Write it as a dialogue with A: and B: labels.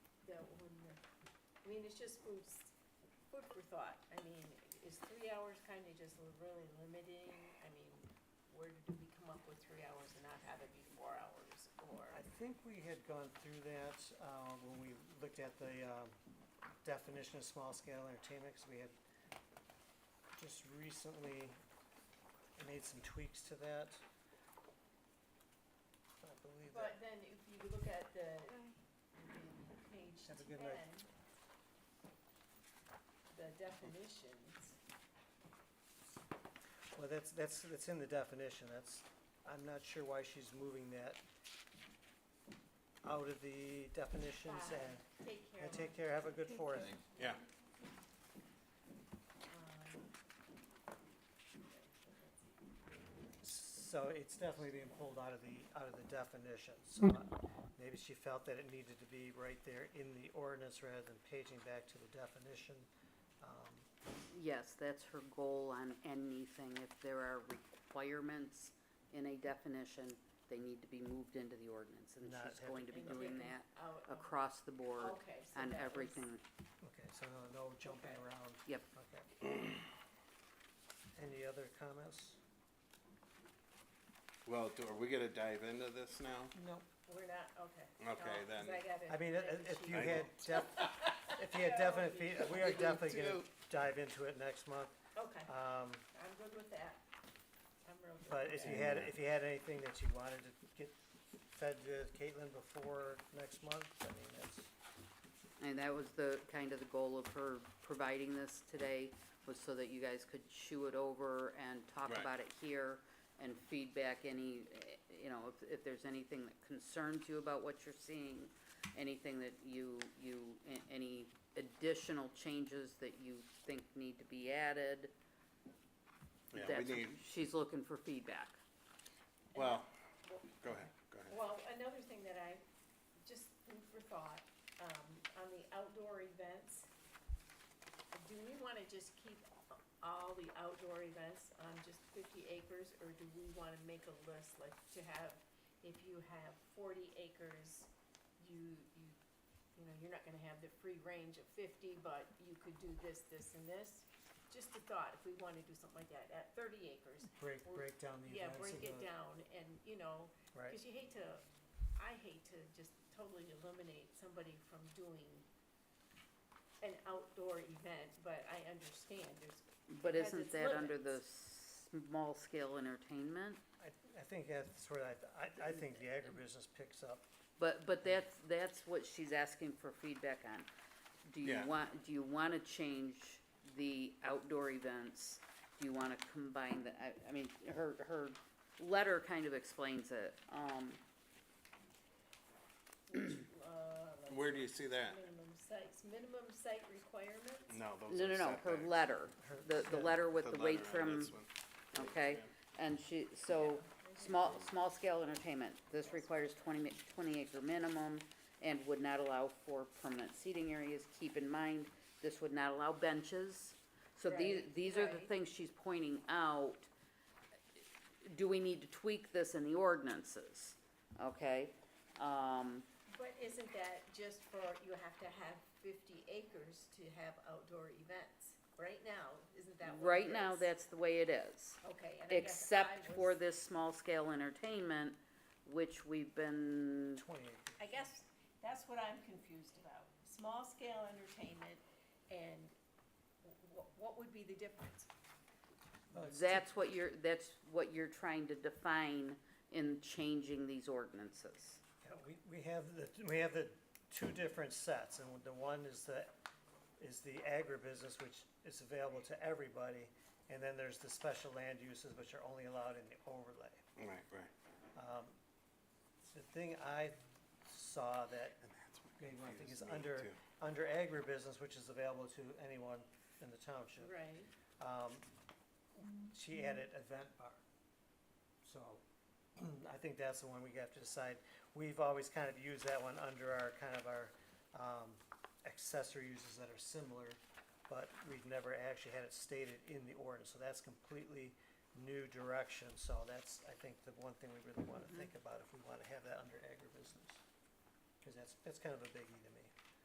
A: mean, it's just food, s- food for thought. I mean, is three hours kind of just l- really limiting? I mean, where did we come up with three hours and not have it be four hours or?
B: I think we had gone through that, uh, when we looked at the, um, definition of small-scale entertainment, 'cause we had just recently made some tweaks to that. I believe that,
A: But then if you look at the, the page
B: Have a
A: ten,
B: good night.
A: the definitions,
B: well, that's, that's, that's in the definition, that's, I'm not sure why she's moving that out of the definitions
A: Bye.
B: and,
A: take care
B: and
A: of.
B: take care, have a good fourth.
C: Yeah.
A: um,
B: So it's definitely being pulled out of the, out of the definition, so maybe she felt that it needed to be right there in the ordinance rather than paging back to the definition. Um,
D: Yes, that's her goal on anything. If there are requirements in a definition, they need to be moved into the ordinance, and
B: Not
D: she's
B: have-
D: going to be
A: And
D: doing
A: taken
D: that
A: out of-
D: across the board
A: oh, Okay, so
D: on
A: that was-
D: everything.
B: Okay, so no- no jumping
A: Okay.
B: around,
D: Yep,
B: okay. Any other comments?
C: Well, do, are we gonna dive into this now?
B: No.
A: We're not, okay.
C: Okay,
A: No, 'cause
C: then.
A: I gotta
B: I mean, i-
A: make a
B: i- if
A: sheet.
B: you
C: I
B: had def, if you
A: That
B: had
A: would
B: definite,
A: be-
B: fee- we are
C: Me
B: definitely gonna
C: too.
B: dive into it next month.
A: Okay,
B: Um,
A: I'm good with that. I'm real good.
B: But
A: with
B: if
A: that.
B: you had, if you had anything that you wanted to get fed to Caitlin before next month, I mean, that's,
D: and that was the, kind of the goal of her providing this today, was so that you guys could chew it over and talk
C: Right.
D: about it here and feedback any, eh, you know, if, if there's anything that concerns you about what you're seeing, anything that you, you, a- any additional changes that you think need to be added.
C: Yeah,
D: That's,
C: we need,
D: she's looking for feedback.
C: well, go ahead, go ahead.
A: Well, another thing that I, just food for thought, um, on the outdoor events, do we wanna just keep all the outdoor events on just fifty acres, or do we wanna make a list, like to have, if you have forty acres, you, you, you know, you're not gonna have the free range of fifty, but you could do this, this, and this? Just a thought, if we wanna do something like that, at thirty acres,
B: break,
A: Or-
B: break down the
A: yeah,
B: events.
A: break
B: and
A: it
B: the-
A: down, and, you know,
B: Right,
A: because you hate to, I hate to just totally eliminate somebody from doing an outdoor event, but I understand there's,
D: But
A: Has
D: isn't
A: its
D: that under the
A: limits.
D: small scale entertainment?
B: I, I think that's where I, I, I think the agribusiness picks up.
D: But, but that's, that's what she's asking for feedback on. Do you
C: Yeah.
D: want, do you wanna change the outdoor events? Do you wanna combine the, I, I mean, her, her letter kind of explains it, um,
A: uh, like
C: Where do you see that?
A: minimum sites, minimum site requirements?
C: No, those
D: no,
C: are
D: no, no, her
C: setbacks.
D: letter,
B: Her-
D: the, the
B: yeah,
D: letter with
C: The
D: the
C: letter
D: weight
C: on
D: from,
C: this one.
D: okay? And she, so, small, small scale entertainment, this requires 20 mi- 20 acre minimum and would not allow for permanent seating areas, keep in mind, this would not allow benches. So these,
A: Right,
D: these are the
A: right.
D: things she's pointing out. Do we need to tweak this in the ordinances? Okay, um,
A: But isn't that just for, you have to have fifty acres to have outdoor events? Right now, isn't that what it
D: right now,
A: is?
D: that's the way it is.
A: Okay, and I guess I
D: Except for
A: was-
D: this small scale entertainment, which we've been
B: Twenty acres.
A: I guess that's what I'm confused about. Small scale entertainment and wh- wh- what would be the difference?
C: Oh,
B: Well, it's
D: That's what you're, that's what you're trying to define in changing these ordinances.
B: Yeah, we, we have the, we have the two different sets, and the one is the, is the agribusiness, which is available to everybody, and then there's the special land uses, which are only allowed in the overlay.
C: Right, right.
B: The thing I saw that
C: And that's what
B: maybe I think is
C: confused me,
B: under, under
C: too.
B: agribusiness, which is available to anyone in the township.
A: Right.
B: um, she added event bar. So, I think that's the one we have to decide. We've always kind of used that one under our, kind of our, um, accessory uses that are similar, but we've never actually had it stated in the ordinance, so that's completely new direction, so that's, I think, the one thing we really wanna think about if we wanna have that under agribusiness. Cause that's, that's kind of a biggie to me.